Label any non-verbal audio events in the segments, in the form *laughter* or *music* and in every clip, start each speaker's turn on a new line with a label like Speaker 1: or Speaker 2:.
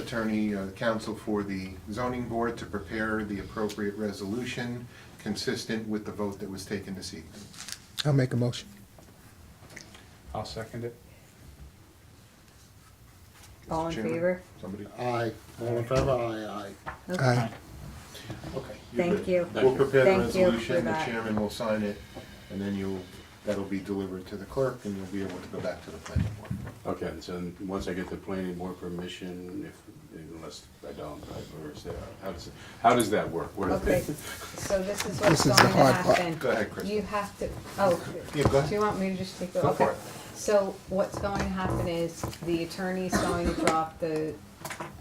Speaker 1: attorney, uh, counsel for the zoning board to prepare the appropriate resolution consistent with the vote that was taken this evening.
Speaker 2: I'll make a motion.
Speaker 3: I'll second it.
Speaker 1: Mr.
Speaker 4: All in
Speaker 1: Chairman,
Speaker 4: favor?
Speaker 1: Somebody?
Speaker 5: Aye, all in favor, aye, aye.
Speaker 2: Aye.
Speaker 1: Okay.
Speaker 4: Thank
Speaker 1: good.
Speaker 4: you.
Speaker 1: We'll prepare the
Speaker 4: Thank you for
Speaker 1: resolution, the
Speaker 4: that.
Speaker 1: chairman will sign it, and then you'll, that'll be delivered to the clerk, and you'll be able to go back to the planning board.
Speaker 6: Okay, so then once I get the planning board permission, if, unless I don't, I- or is there, how does, it- how does that work? Where do they- *laughs*
Speaker 4: Okay, so this is
Speaker 2: This
Speaker 4: what's
Speaker 2: is the
Speaker 4: going to
Speaker 2: hard part.
Speaker 4: happen.
Speaker 1: Go ahead, Krista.
Speaker 4: You have to, oh,
Speaker 1: Yeah, go
Speaker 4: do
Speaker 1: ahead.
Speaker 4: you want me to just take the?
Speaker 1: Go
Speaker 4: okay.
Speaker 1: for it.
Speaker 4: So what's going to happen is the attorney's going to drop the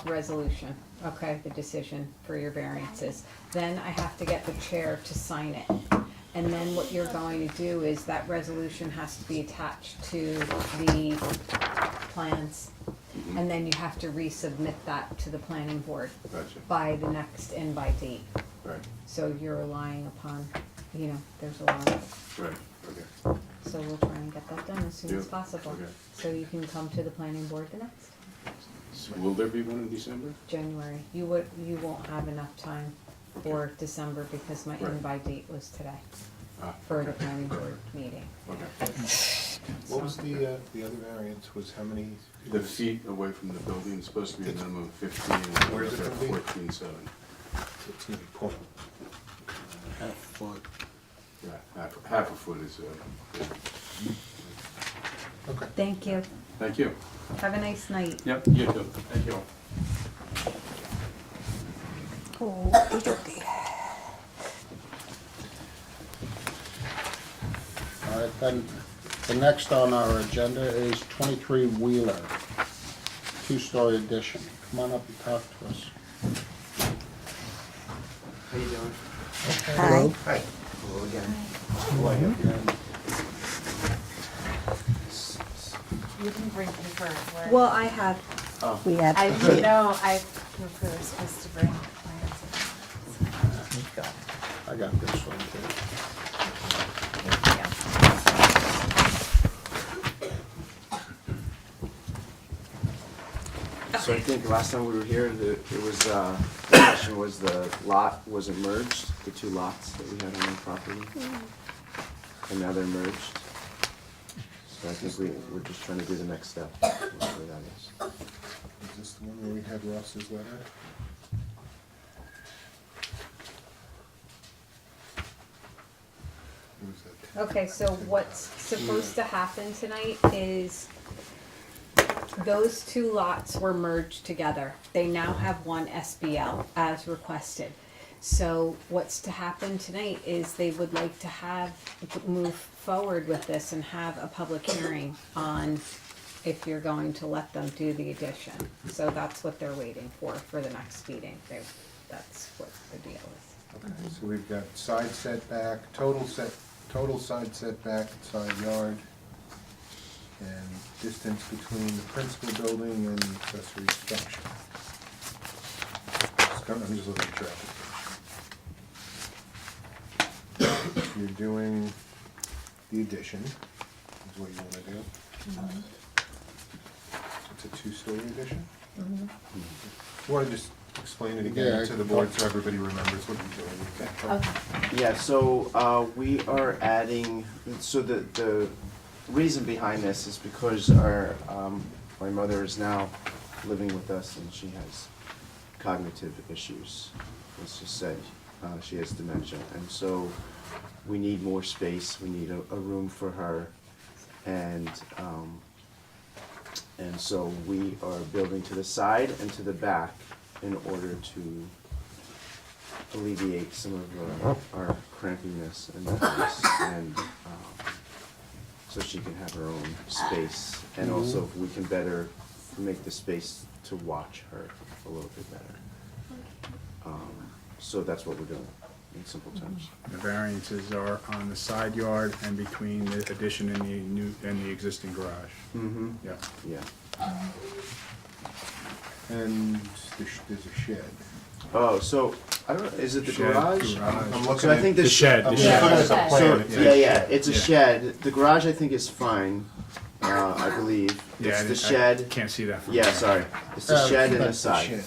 Speaker 4: resolution, okay, the decision for your variances. Then I have to get the chair to sign it. And then what you're going to do is that resolution has to be attached to the plans. And then you have to resubmit that to the planning board
Speaker 6: Gotcha,
Speaker 4: by the next invite date.
Speaker 6: right,
Speaker 4: So you're relying upon, you know, there's a lot,
Speaker 6: right, okay.
Speaker 4: so we'll try and get that done as soon as
Speaker 6: Yeah,
Speaker 4: possible.
Speaker 6: okay.
Speaker 4: So you can come to the planning board the next,
Speaker 6: So Will there be one in December?
Speaker 4: January. You would, you won't have enough time for December because my
Speaker 6: Right.
Speaker 4: invite date was today
Speaker 6: Ah,
Speaker 4: for the planning board meeting.
Speaker 6: Okay.
Speaker 1: What was the, uh, the other variance was how many?
Speaker 6: The feet away from the building is supposed to be a minimum of fifteen, and
Speaker 1: Where
Speaker 6: we're
Speaker 1: is it
Speaker 6: at
Speaker 1: gonna be?
Speaker 6: fourteen seven.
Speaker 1: It's gonna be point.
Speaker 5: Half foot.
Speaker 6: Yeah, half, half a foot is, uh,
Speaker 1: Okay.
Speaker 4: Thank you.
Speaker 6: thank you.
Speaker 4: Have a nice night.
Speaker 6: Yep, you too, thank you all.
Speaker 5: All right, then, the next on our agenda is twenty-three Wheeler, two-story addition. Come on up and talk to us.
Speaker 7: How you doing?
Speaker 2: Hello?
Speaker 1: Hi.
Speaker 7: Hello again.
Speaker 8: You can bring paper. where-
Speaker 4: Well, I have,
Speaker 2: We have.
Speaker 6: *laughs*
Speaker 8: I you know I we were supposed to bring plans.
Speaker 5: I got this one too.
Speaker 8: Thank
Speaker 7: So I think last time we were here, the, it was, uh, the question was the lot was not merged, the two lots that we had on our property. And now they're merged. So I think we, we're just trying to do the next step, whatever that is.
Speaker 1: Is this the one where we had Ross's letter? Where was that?
Speaker 4: okay, so what's supposed to happen tonight is those two lots were merged together. They now have one SBL as requested. So what's to happen tonight is they would like to have, move forward with this and have a public hearing on if you're going to let them do the addition. So that's what they're waiting for, for the next meeting. They, that's what the deal is.
Speaker 1: Okay, So we've got side setback, total set, total side setback, side yard, and distance between the principal building and the accessory structure. It's kind of- I'm just looking at traffic. You're doing the addition, is what you want to do.
Speaker 5: Mm-hmm.
Speaker 1: It's a two-story addition? Want to just explain it
Speaker 5: Mm-hmm. Yeah, I
Speaker 1: again to the
Speaker 5: can
Speaker 1: board
Speaker 5: talk.
Speaker 1: so everybody remembers what you're doing? Okay.
Speaker 7: Yeah, so uh, we are adding, so the, the reason behind this is because our, um, my mother is now living with us and she has cognitive issues, let's just say. Uh, She has dementia, and so we need more space, we need a, a room for her. And, um, and so we are building to the side and to the back in order to alleviate some of uh, our crampiness in the house and um, so she can have her own space and also if we can better make the space to watch her a little bit better. Um, So that's what we're doing in simple terms.
Speaker 3: The variances are on the side yard and between the addition and the new, and the existing garage.
Speaker 7: Mm-hmm.
Speaker 3: Yeah.
Speaker 7: Yeah.
Speaker 1: And there's there's a shed.
Speaker 7: Oh, so, I don't, is it the
Speaker 3: Shed,
Speaker 7: garage?
Speaker 1: I'm
Speaker 3: garage.
Speaker 1: looking
Speaker 7: So I
Speaker 1: at-
Speaker 7: think the.
Speaker 3: The shed,
Speaker 1: I'm
Speaker 3: the
Speaker 1: looking
Speaker 3: shed.
Speaker 1: at the
Speaker 8: Yeah.
Speaker 1: plan.
Speaker 7: So, yeah, yeah, it's a
Speaker 3: Yeah.
Speaker 7: shed. The garage I think is fine. uh, I believe.
Speaker 9: Yeah, I
Speaker 7: It's the
Speaker 9: didn't- I
Speaker 7: shed,
Speaker 9: Can't see that from
Speaker 7: yeah,
Speaker 9: here.
Speaker 7: sorry, it's the shed and the
Speaker 5: That's the
Speaker 7: side.
Speaker 5: shed.